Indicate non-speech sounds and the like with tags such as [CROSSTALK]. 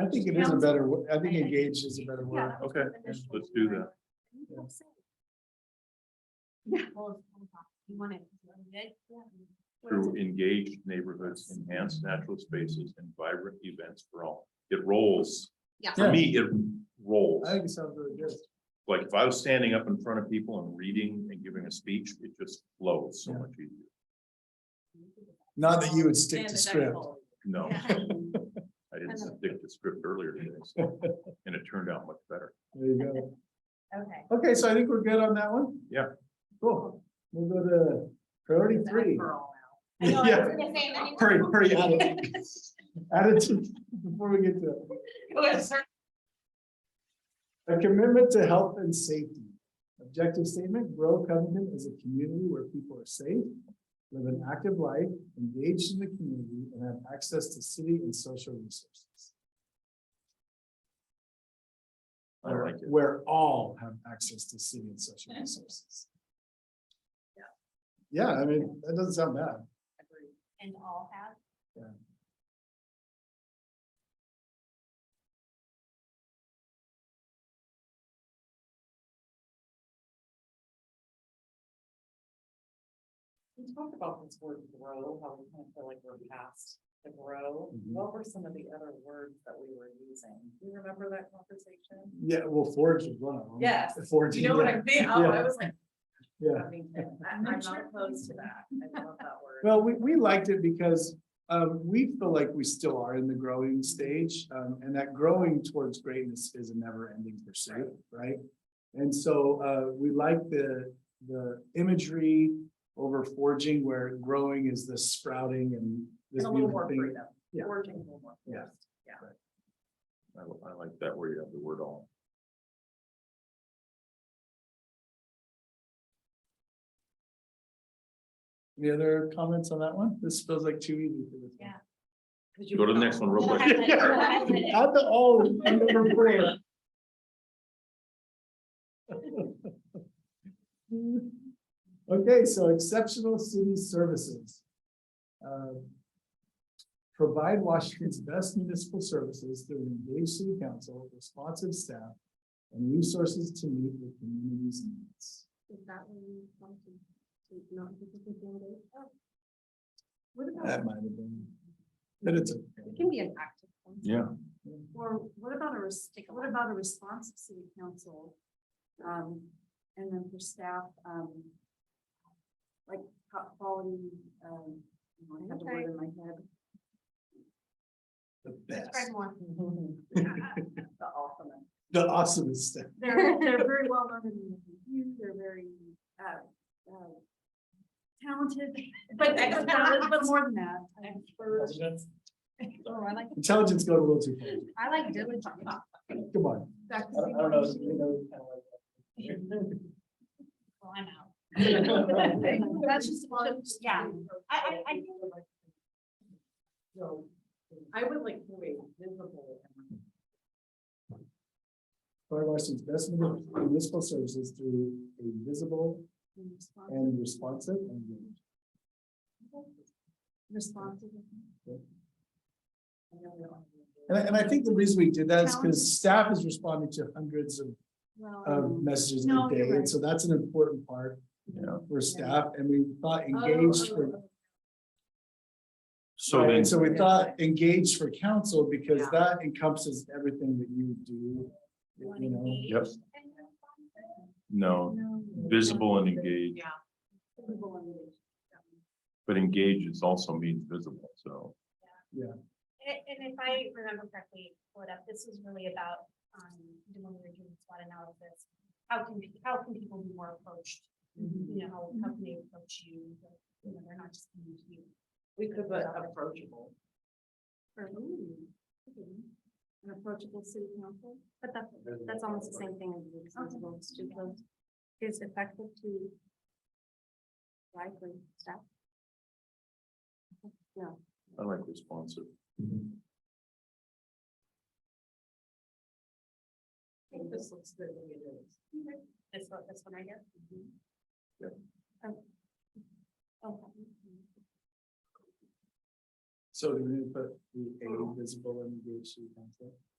I think it is a better, wo- I think engaged is a better word. Yeah. Okay, let's do that. Yeah. You want it. through engaged neighborhoods, enhanced natural spaces and vibrant events for all. It rolls. Yeah. For me, it rolls. I think it sounds really good. Like if I was standing up in front of people and reading and giving a speech, it just flows so Yeah. much easier. Not that you would stick to script. No, Yeah. I didn't stick to script earlier today, [LAUGHS] so- and it turned out much better. There you go. Okay. Okay, so I think we're good on that one? Yeah. Cool. We'll go to priority three. I know, I Yeah. was gonna say that. Hurry, hurry, attitude. [LAUGHS] Attitude, before we get to, it. Go ahead, sir. a commitment to health and safety. Objective statement, grow Covington is a community where people are safe, live an active life, engaged in the community, and have access to city and social resources. I like it. Where all have access to city and social resources. Yeah, I mean, that doesn't sound bad. And all have. Yeah. We talked about this word grow, how we kind of feel like we're past the grow. Mhm. What were some of the other words that we were using? Do you remember that conversation? Yeah, well, forage is one of them. Yes. Forage. Do is you know what one. I mean? Oh, I Yeah. was like. Yeah. Covington. I- I'm not not sure. opposed to that. I love that word. Well, we, we liked it because um, we feel like we still are in the growing stage. Um, and that growing towards greatness is a never ending pursuit, right? And so uh, we like the, the imagery over forging where growing is the sprouting and this And a little beautiful more thing. freedom. Yeah. Forging a little more. Yeah. freedom. I, li- I like that where you have the word all. Any other comments on that one? This feels like too easy for this. one. Yeah. Go to the next one real quick. [LAUGHS] Yeah. Add the all in number four. Okay, so exceptional city services. Um, Provide Washington's best municipal services through an engaged city council, responsive staff, and resources to meet the community's needs. Is that when you want to take note of the people that- oh, What about, That might have been, but it's okay. It can be an active. one. Yeah. Or what about a, res- what about a response of city council? Um, and then for staff, um, like top quality, um, you know, I have the word in my head. the best, Describe [LAUGHS] one. the ultimate? the awesomest staff. They're, they're very well known in the community, they're very, uh, uh, talented, but, but but [LAUGHS] more than that. experts. Oh, I like, Intelligence got a little too far. I like diligent. Come on. Dr. Seuss. Well, I'm out. [LAUGHS] That's just one, yeah. I- I- I So, I would like to be visible and Provide Washington's best municipal services through a visible and responsive and. Responsive. I know we don't. And I, and I think the reason we did that is because staff is responding to hundreds of, Well, of messages No, a you're day, and right. so that's an important part Yeah. for staff, and we thought engaged for. So Right, then, and So we thought engaged for council, because Yeah. that encompasses everything that you do, you know. yep, no, visible and engaged, Yeah. Visible and engaged. but engaged is also means visible, so. And, and if I remember correctly, pull it up, this was really about, um, when we were doing SWOT analysis, how can, we- how can people be more approached? Mm-hmm. You know, how, how can they approach you, you know, they're not just coming to you. We could put approachable. Or, ooh, okay. An approachable city council. But that's, that's almost the same thing as the responsible student, is effective to likely staff. I like responsive. I think this looks good when it is. Mm-hmm. this one, this one right here. Oh, Okay. So do we put the A visible and engaged to the council?